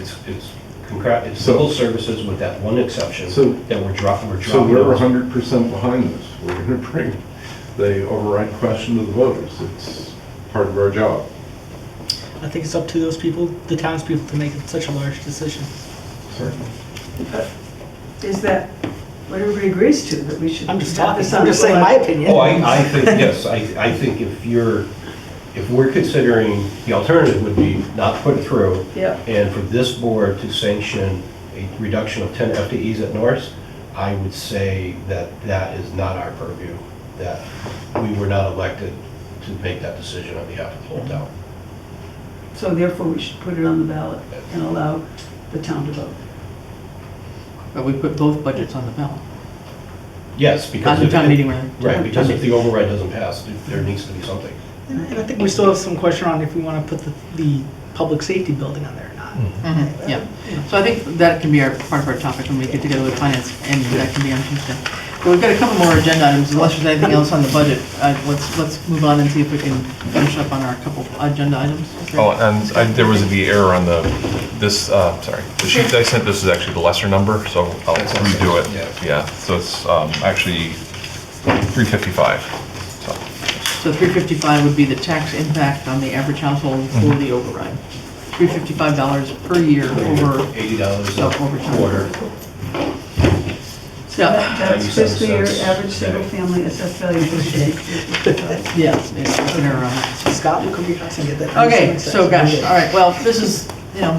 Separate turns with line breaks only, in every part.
it's, concra- it's
So-
civil services with that one exception
So-
that we're dropping, we're
So
dropping.
we're
those.
hundred percent behind this. We're gonna bring the override question to the voters. It's part of our job.
I think it's up to those people, the townspeople, to make such a large decision.
Certainly.
is that what everybody agrees to, that we should.
I'm just
have
talking,
this on
I'm just saying my
the ballot.
opinion.
Oh, I, I think, yes, I, I think if you're, if we're considering, the alternative would be not put it through.
Yeah.
And for this board to sanction a reduction of 10 FTEs at Norris, I would say that that is not our purview, that we were not elected to make that decision on behalf of the whole town.
So therefore, we should put it on the ballot and allow the town to vote.
But we put both budgets on the ballot.
Yes, because.
On the
if-
town meeting, right?
Right, because if the override doesn't pass, there needs to be something.
And I- and I think we still have some question on if we want to put the, the public safety building on there or not.
Mm-hmm.
Mhm, Yeah, so I think that can be our, part of our topic when we get together with finance, and that can be on Tuesday. But we've got a couple more agenda items, unless there's anything else on the budget, uh, let's, let's move on and see if we can finish up on our couple agenda items. Is there-
Oh, and I- there was the error on the, this, uh, sorry, the sheet that I sent, this is actually the lesser number, so I'll
That's okay.
redo
Yeah.
it. Yeah, so it's um, actually 355. So
So three fifty-five would be the tax impact on the average household for the override. Three fifty-five dollars per year over,
Eighty dollars
No,
a
overtime.
quarter.
So that- that's
97
fiscal year
cents.
average single family assessed value per shade.
yes, it's in uh, or around.
Scott, look over your house and get that.
Okay, so gosh, all right, well, this is, you know,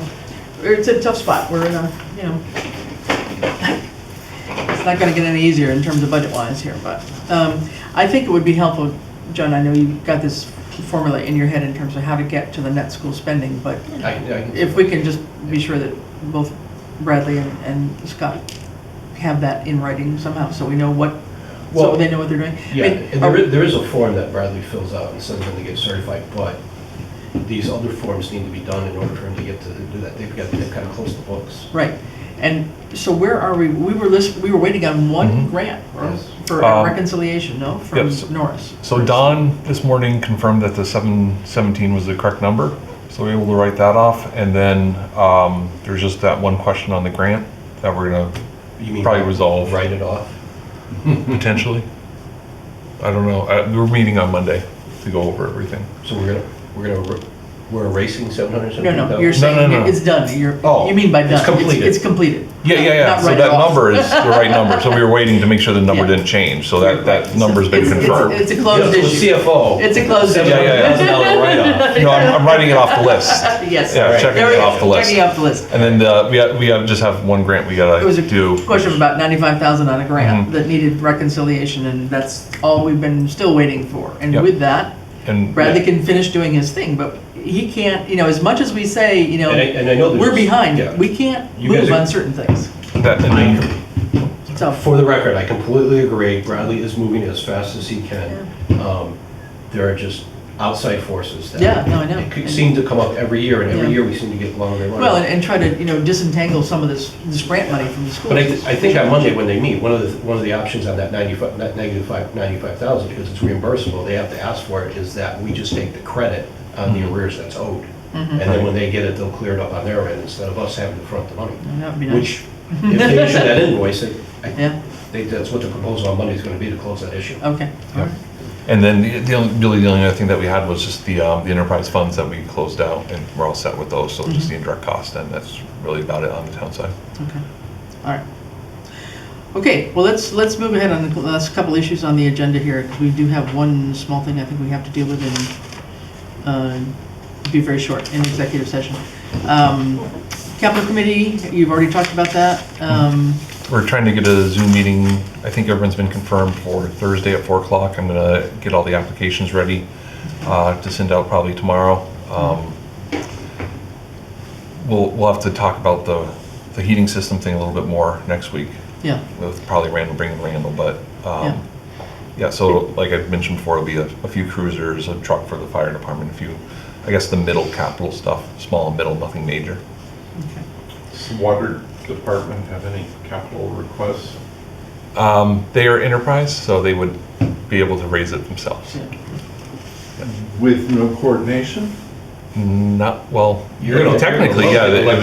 it's a tough spot, we're in a, you know, it's not gonna get any easier in terms of budget-wise here, but, um, I think it would be helpful, John, I know you've got this formula in your head in terms of how to get to the net school spending, but
I- I-
if we can just be sure that both Bradley and, and Scott have that in writing somehow, so we know what, so
Well,
they know what they're doing. I
Yeah,
mean,
and
are-
there is, there is a form that Bradley fills out and sends them to get certified, but these other forms need to be done in order for him to get to do that. They've got to kind of close the books.
Right, and so where are we, we were list, we were waiting on one
Mhm.
grant
Yes.
for
Um,
reconciliation, no, from
yes.
Norris?
so Don this morning confirmed that the 717 was the correct number, so we were able to write that off. And then um, there's just that one question on the grant that we're going to
You mean
Probably resolve.
Write it off.
Hmm. potentially, I don't know, Uh, we're meeting on Monday to go over everything.
So we're gonna, we're gonna, er- we're erasing seven hundred
No,
seventy thousand?
no, you're
no,
saying
no.
it's done, you're,
Oh,
you mean by
it's
done?
completed.
It's completed.
Yeah, yeah, yeah.
Not
So
write it
that
off.
number is the right number. So we were waiting to make sure the number
Yeah.
didn't change. So that, that number's been
It's- it's-
confirmed.
It's a closed issue.
CFO.
It's a closed issue.
Yeah, yeah,
Seven hundred thousand dollar write-off.
No, I'm, I'm writing it off the list.
Yes.
Yeah,
Right.
checking
There we
it
go.
off the list.
Checking off the list.
And then the, we have, we have, just have one grant we
It was
gotta do.
a question of about ninety-five thousand on a grant
Mhm.
that needed reconciliation, and that's all we've been still waiting for. And
Yep.
with that,
And
Bradley can finish doing his thing, but he can't, you know, as much as we say, you know,
And I, and I know there's.
we're
yeah.
behind, we can't
You guys
move
are-
on certain things.
that, and then-
So,
For the record, I completely agree. Bradley is moving as fast as he can. Um, There are just outside forces that.
Yeah, no, I know.
it Seem to come up every year, and every
Yeah.
year we seem to get longer and longer.
well, and, and try to, you know, disentangle some of this, this grant money from the schools.
But I, I think on Monday when they meet, one of the, one of the options on that 95, that negative five, 95,000, because it's reimbursable, they have to ask for it, is that we just take the credit on
Mm-hmm.
the arrears that's owed. And then when they get it, they'll clear it up on their end instead of us having to front the money.
That would be nice,
Which, if they issue that invoice, I I
yeah,
think that's what the proposal on Monday is going to be to close that issue.
okay. all right.
and then the, the only, really the only other thing that we had was just the, um, the enterprise funds that we closed out and we're all set with those. So just
Mm-hmm.
the indirect cost and that's really about it on the town side.
Okay, all right. Okay, well, let's, let's move ahead on the last couple issues on the agenda here, 'cause we do have one small thing I think we have to deal with and, uh, be very short in executive session. Um, Capital Committee, you've already talked about that. Um,
We're trying to get a Zoom meeting, I think everyone's been confirmed for Thursday at 4 o'clock. I'm going to get all the applications ready uh, to send out probably tomorrow. Um, We'll, we'll have to talk about the, the heating system thing a little bit more next week
yeah,
with probably Randall, bringing Randall, but,
Yeah.
um, yeah, so like I've mentioned before, it'll be a, a few cruisers, a truck for the fire department, a few, I guess the middle capital stuff, small and middle, nothing major.
okay.
Does the water department have any capital requests?
Um, They are enterprise, so they would be able to raise it themselves.
Yeah.
With no coordination?
Not, well,
You're gonna-
technically, yeah.
you're gonna
they-